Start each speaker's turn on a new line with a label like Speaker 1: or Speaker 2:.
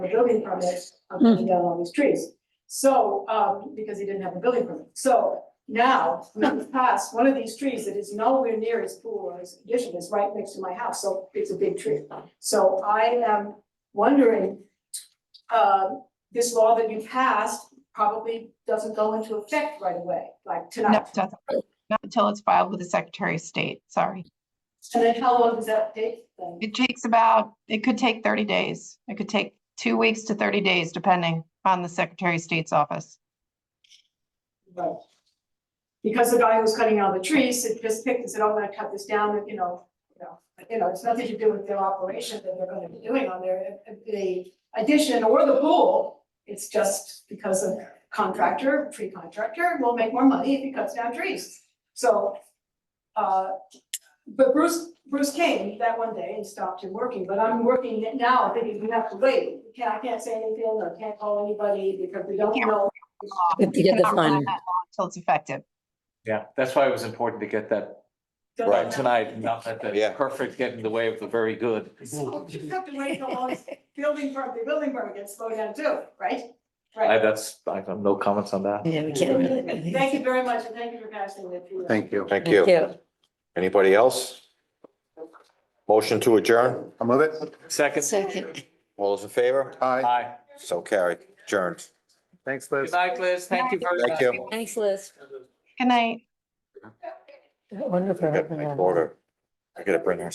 Speaker 1: building permit, on cutting down all these trees. So, um, because he didn't have a building permit, so now, we have passed one of these trees that is nowhere near his pool or his addition, is right next to my house, so it's a big tree. So I am wondering, um, this law that you passed probably doesn't go into effect right away, like
Speaker 2: No,
Speaker 1: tonight.
Speaker 2: it doesn't. Not until it's filed with the Secretary of State, sorry.
Speaker 1: And then how long does that take then?
Speaker 2: It takes about, it could take 30 days. It could take two weeks to 30 days, depending on the Secretary of State's office.
Speaker 1: Right. Because the guy who was cutting down the trees had just picked and said, "Oh, I'm gonna cut this down, and, you know, you know, you know, it's nothing to do with their operation that they're gonna be doing on their, uh, the addition or the pool. It's just because of contractor, pre-contractor will make more money if he cuts down trees. So, uh, but Bruce, Bruce came that one day and stopped him working, but I'm working it now, thinking we have to wait. We can't, I can't say anything, or can't call anybody because we don't
Speaker 2: Can't
Speaker 1: know
Speaker 3: We have to get the
Speaker 2: Cannot rely on
Speaker 3: fund.
Speaker 2: that law Until it's effective.
Speaker 4: Yeah, that's why it was important to get that
Speaker 1: Don't
Speaker 4: right
Speaker 1: know.
Speaker 4: tonight, not let the
Speaker 5: Yeah.
Speaker 4: perfect get in the way of the very good.
Speaker 1: So you have to wait till all this building permit, the building permit gets slowed down too, right?
Speaker 4: I,
Speaker 1: Right.
Speaker 4: that's, I have no comments on that.
Speaker 3: Yeah, we can't.
Speaker 1: Thank you very much, and thank you for passing that. through.
Speaker 6: Thank you.
Speaker 5: Thank
Speaker 3: Thank
Speaker 5: you.
Speaker 3: you.
Speaker 5: Anybody else? Motion to adjourn?
Speaker 6: I'll move it.
Speaker 4: Second?
Speaker 3: Second.
Speaker 5: All those in favor?
Speaker 6: Aye.
Speaker 4: Aye.
Speaker 5: So carried. Adjourned.
Speaker 6: Thanks, Liz.
Speaker 4: Good night, Liz. Thank you very much.
Speaker 5: Thank you.
Speaker 3: Thanks, Liz.
Speaker 2: Good night.
Speaker 3: Wonderful.
Speaker 5: I got my daughter. I gotta bring her